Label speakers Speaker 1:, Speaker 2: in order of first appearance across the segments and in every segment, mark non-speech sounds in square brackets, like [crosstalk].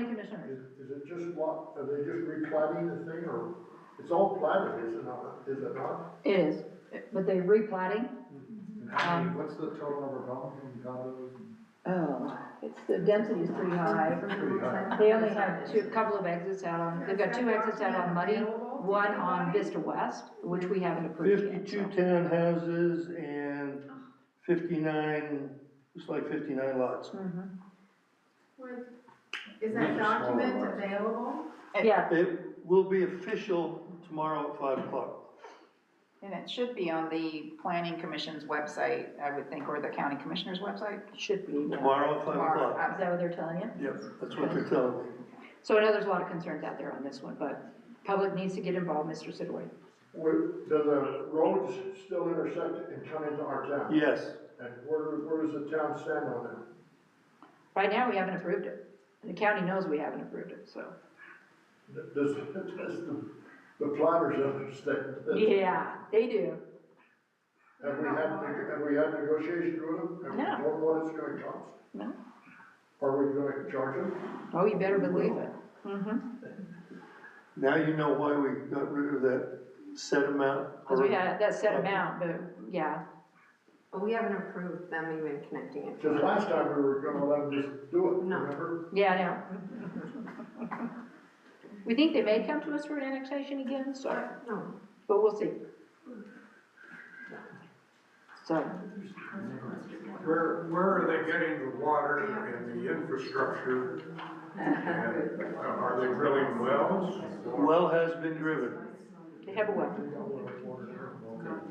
Speaker 1: Commissioner.
Speaker 2: Is, is it just what, are they just replating the thing, or, it's all platted, is it not, is it not?
Speaker 3: It is, but they're replatting.
Speaker 2: And how many, what's the total number of homes and condos?
Speaker 3: Oh, it's, the density's pretty high.
Speaker 2: Pretty high.
Speaker 3: They only have two, a couple of exits out on, they've got two exits out on Muddy, one on Vista West, which we haven't approved yet. so.
Speaker 4: Fifty-two townhouses and fifty-nine, it's like fifty-nine lots.
Speaker 3: Mhm.
Speaker 5: Is that document available?
Speaker 1: Yeah,
Speaker 4: It will be official tomorrow at five o'clock.
Speaker 6: And it should be on the planning commission's website, I would think, or the county commissioner's website
Speaker 3: It Should be. yeah.
Speaker 4: Tomorrow at five
Speaker 6: tomorrow.
Speaker 4: o'clock.
Speaker 6: Uh,
Speaker 3: Is that what they're telling you?
Speaker 4: Yep, that's what they're telling me.
Speaker 3: So I know there's a lot of concerns out there on this one, but public needs to get involved, Mr. Sidway.
Speaker 2: Where, do the roads still intersect and come into our town?
Speaker 4: Yes,
Speaker 2: And where, where does the town stand on that?
Speaker 3: Right now, we haven't approved it. The county knows we haven't approved it, so.
Speaker 2: Does, [laughs] does the, the plotters understand?
Speaker 3: [laughs]
Speaker 2: that?
Speaker 3: Yeah, they do.
Speaker 2: Have we had, have we had negotiations with them? Have we
Speaker 3: No.
Speaker 2: told them what it's gonna cost?
Speaker 3: No.
Speaker 2: Are we gonna charge them?
Speaker 3: Oh, you better believe it. Mm-hmm.
Speaker 4: now you know why we got rid of that set amount.
Speaker 3: Because we had that set amount, but yeah,
Speaker 5: But we haven't approved them even connecting it.
Speaker 2: Cause last time we were gonna let them just do it,
Speaker 5: No.
Speaker 2: remember?
Speaker 3: yeah, I know. We think they may come to us for annexation again, so,
Speaker 5: No,
Speaker 3: but we'll see. So,
Speaker 7: Where, where are they getting the water and the infrastructure? And Are they drilling wells?
Speaker 4: Well has been driven.
Speaker 3: they have a weapon.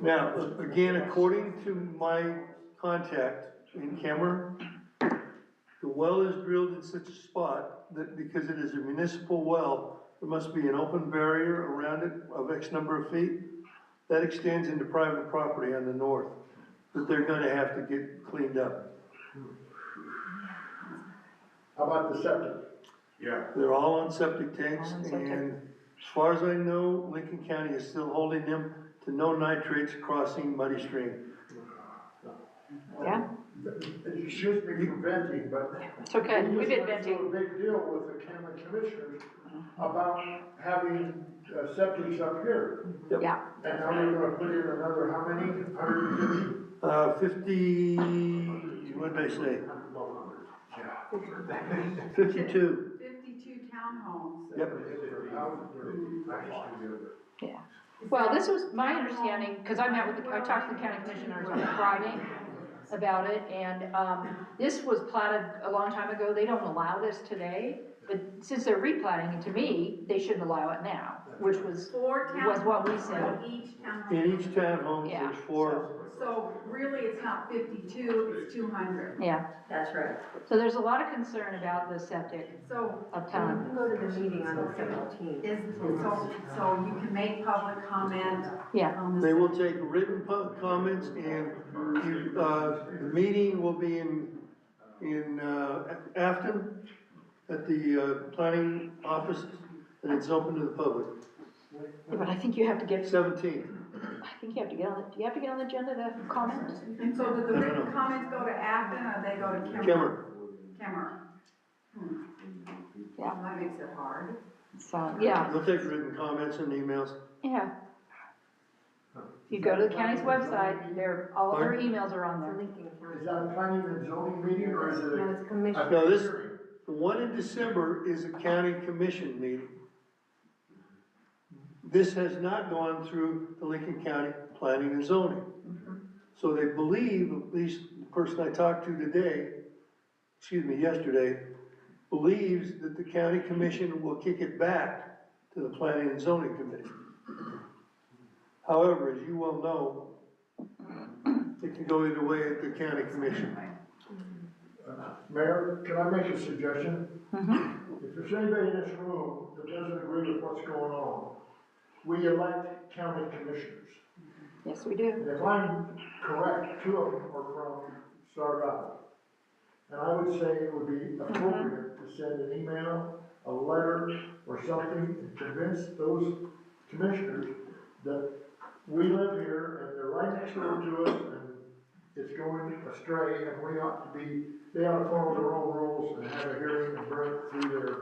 Speaker 4: Now, again, according to my contact in Cameron, the well is drilled in such a spot that because it is a municipal well, there must be an open barrier around it of X number of feet. That extends into private property on the north, that they're gonna have to get cleaned up.
Speaker 2: How about the septic?
Speaker 7: Yeah,
Speaker 4: They're all on septic tanks
Speaker 3: All on septic.
Speaker 4: and as far as I know, Lincoln County is still holding them to no nitrates crossing muddy stream.
Speaker 3: Yeah,
Speaker 2: It should be preventing, but.
Speaker 3: it's okay. We've been venting.
Speaker 2: We just went through a big deal with the county commissioners about having uh, septics up here.
Speaker 3: Yeah,
Speaker 2: And how we're gonna put in another, how many, hundred and fifty?
Speaker 4: Uh, fifty, what did I say? Fifty-two,
Speaker 8: Fifty-two townhomes.
Speaker 4: yep.
Speaker 3: yeah. Well, this was my understanding, because I met with, the I talked to the county commissioners on Friday about it, and, um, this was platted a long time ago. They don't allow this today. But since they're replatting it to me, they shouldn't allow it now, which was,
Speaker 8: Four
Speaker 3: Was
Speaker 8: townhomes
Speaker 3: what we
Speaker 8: on each
Speaker 4: In
Speaker 8: townhome.
Speaker 4: each townhome, there's four,
Speaker 8: So really, it's not fifty-two, it's two hundred.
Speaker 3: yeah.
Speaker 5: that's right.
Speaker 3: So there's a lot of concern about the septic
Speaker 8: So
Speaker 3: uptown.
Speaker 5: Go to the meeting on the seventeenth.
Speaker 8: is, so, so you can make public comment
Speaker 3: Yeah,
Speaker 8: on this.
Speaker 4: they will take written pu- comments and, you- uh, the meeting will be in, in, uh, Afton at the, uh, planning office, and it's open to the public,
Speaker 3: but I think you have to get,
Speaker 4: seventeenth.
Speaker 3: I think you have to get on, the- do you have to get on the agenda to comment?
Speaker 8: And so do the
Speaker 4: No, no,
Speaker 8: written
Speaker 4: no.
Speaker 8: comments go to Acton or they go to Kimmer?
Speaker 4: Cameron,
Speaker 8: Kimmer. Hmm.
Speaker 3: Yeah.
Speaker 8: That makes it hard.
Speaker 3: So, yeah.
Speaker 4: they'll take written comments and emails.
Speaker 3: Yeah. If you go to the county's website, there, all of their emails are on
Speaker 5: It's a
Speaker 3: there.
Speaker 5: Lincoln
Speaker 2: Is
Speaker 5: County.
Speaker 2: that a planning and zoning meeting, or is
Speaker 5: No,
Speaker 2: it
Speaker 5: it's commission.
Speaker 2: a?
Speaker 4: No, this- The one in December is a county commission meeting. This has not gone through the Lincoln County Planning and Zoning. So they believe, at least the person I talked to today, excuse me, yesterday, believes that the county commission will kick it back to the Planning and Zoning Committee. However, as you well know, it can go either way at the county commission.
Speaker 2: Uh, Mayor, can I make a suggestion?
Speaker 3: Mhm.
Speaker 2: If there's anybody in this room that doesn't agree with what's going on, we elect county commissioners.
Speaker 3: Yes, we do.
Speaker 2: And if I'm correct, two of them are from Star Valley. And I would say it would be appropriate to send an email, a letter, or something, and convince those commissioners that we live here, and they're right next door to us, and it's going astray, and we ought to be, they ought to follow their own rules and have a hearing and break through their